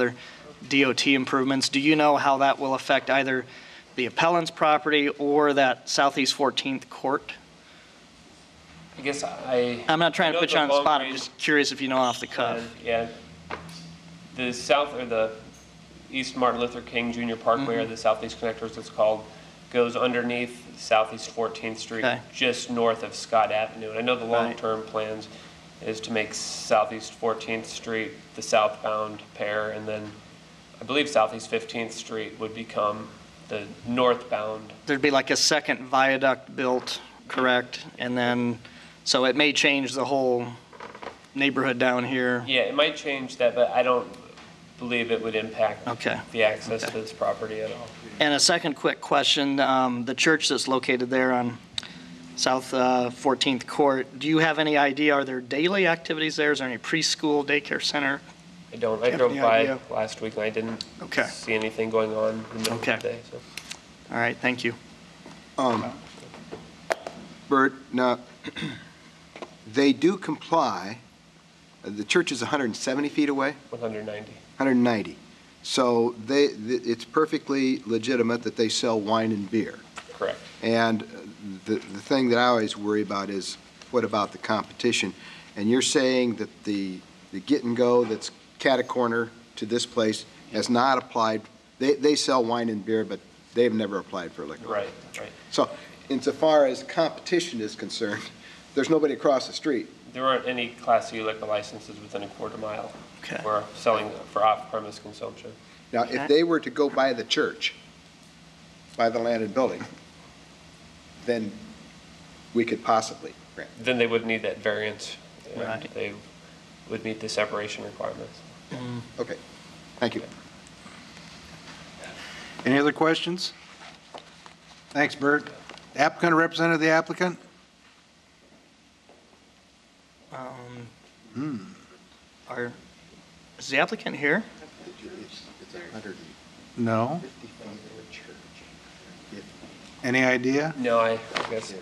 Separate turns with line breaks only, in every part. other DOT improvements. Do you know how that will affect either the appellant's property or that Southeast 14th Court?
I guess I.
I'm not trying to
I know
put you on the
Long
spot, I'm
Range
just curious if you know off the cuff.
Plan, Yeah. The south, or the East Martin Luther King Junior Parkway,
Mm-hmm.
or the Southeast Connector as it's called, goes underneath Southeast 14th Street,
Okay.
just north of Scott Avenue. And I know the
Right.
long-term plans is to make Southeast 14th Street the southbound pair, and then I believe Southeast 15th Street would become the northbound.
There'd be like a second viaduct built, correct? And then, so it may change the whole neighborhood down here.
Yeah, it might change that, but I don't believe it would impact
Okay.
the access to
Okay.
this property at all.
And a second quick question, um, the church that's located there on South uh, 14th Court, do you have any idea, are there daily activities there? Is there any preschool, daycare center?
I don't, I
Have
drove
any
by
idea?
last week and I didn't
Okay.
see anything going on in the middle of the
Okay.
day, so.
All right, thank you.
Um, Bert, now, they do comply, the church is 170 feet away,
190.
190. So they, th- it's perfectly legitimate that they sell wine and beer.
Correct.
And uh, the, the thing that I always worry about is, what about the competition? And you're saying that the, the get-and-go that's catacorner to this place has not applied, they, they sell wine and beer, but they've never applied for liquor.
Right, right.
So insofar as competition is concerned, there's nobody across the street.
There aren't any Class C liquor licenses within a quarter mile
Okay.
for selling for off-premise consumption.
Now, if they were to go by the church, by the land and building, then we could possibly grant.
Then they would need that variance. and
Right.
They would meet the separation requirements.
Okay, thank you.
Any other questions? Thanks, Bert. Applicant or representative of the applicant?
Um, Are, is the applicant here?
No. Any idea?
No, I I guess,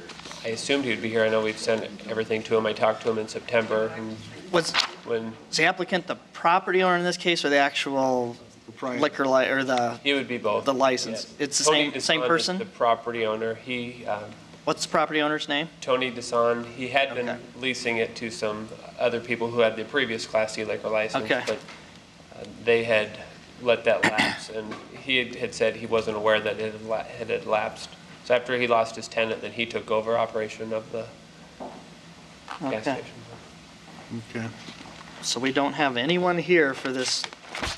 I assumed he'd be here. I know we'd sent everything to him. I talked to him in September and
Was,
when,
is the applicant the property owner in this case, or the actual liquor li, or the,
he would be both.
The license.
Yeah.
It's the
Tony
same- same
Desant is
person?
The property owner. He, um,
what's the property owner's name?
Tony Desan, he had
Okay.
been leasing it to some other people who had the previous Class C liquor license.
Okay.
But uh, they had let that lapse, and he had- had said he wasn't aware that it had la- it had lapsed. So after he lost his tenant, then he took over operation of the gas
Okay.
station.
Okay.
So we don't have anyone here for this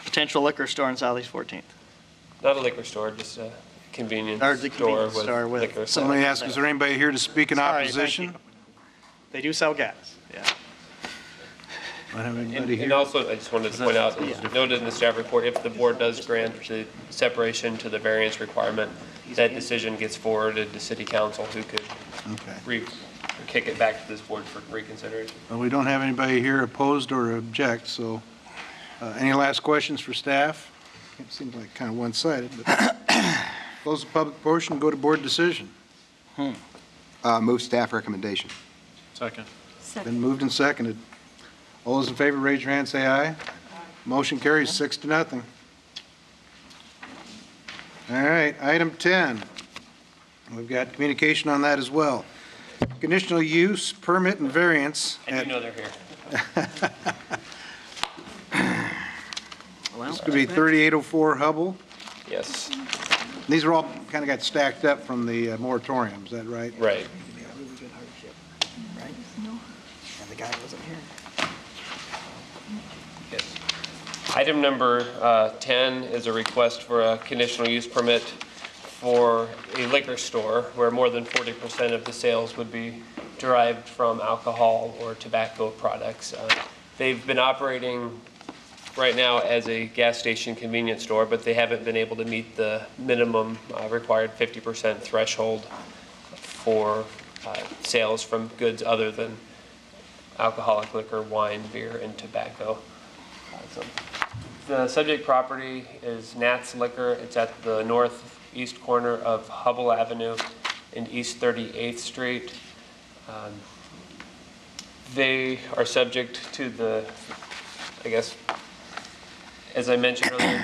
potential liquor store on Southeast 14th?
Not a liquor store, just a convenience
Or the
store
convenience
with
store with
liquor.
some-
Let me ask, is there anybody here to speak in
Sorry, thank
opposition?
you. They do sell gas, yeah.
Don't have
And
anybody
and
here.
also, I just wanted to point out, it's noted in the staff report, if the board does grant the separation to the variance requirement, that decision gets forwarded to city council, who could
Okay.
re, kick it back to this board for reconsideration.
Well, we don't have anybody here opposed or object, so uh, any last questions for staff? It seems like kind of one-sided, but close the public portion, go to board decision.
Uh, Move staff recommendation.
Been moved and seconded. All those in favor, raise your hand, say aye. Motion carries six to nothing. All right, item 10. We've got communication on that as well. Conditional use, permit, and variance.
I
at-
do know they're here.
Well,
This could be 3804 Hubble.
Yes,
These are all kind of got stacked up from the uh, moratorium, is that right?
right.
the guy wasn't here.
Yes. Item number uh, 10 is a request for a conditional use permit for a liquor store where more than 40% of the sales would be derived from alcohol or tobacco products. Uh, They've been operating right now as a gas station convenience store, but they haven't been able to meet the minimum uh, required 50% threshold for uh, sales from goods other than alcoholic liquor, wine, beer, and tobacco. So, The subject property is Nat's Liquor. It's at the northeast corner of Hubble Avenue and East 38th Street. Um, They are subject to the, I guess, as I mentioned earlier,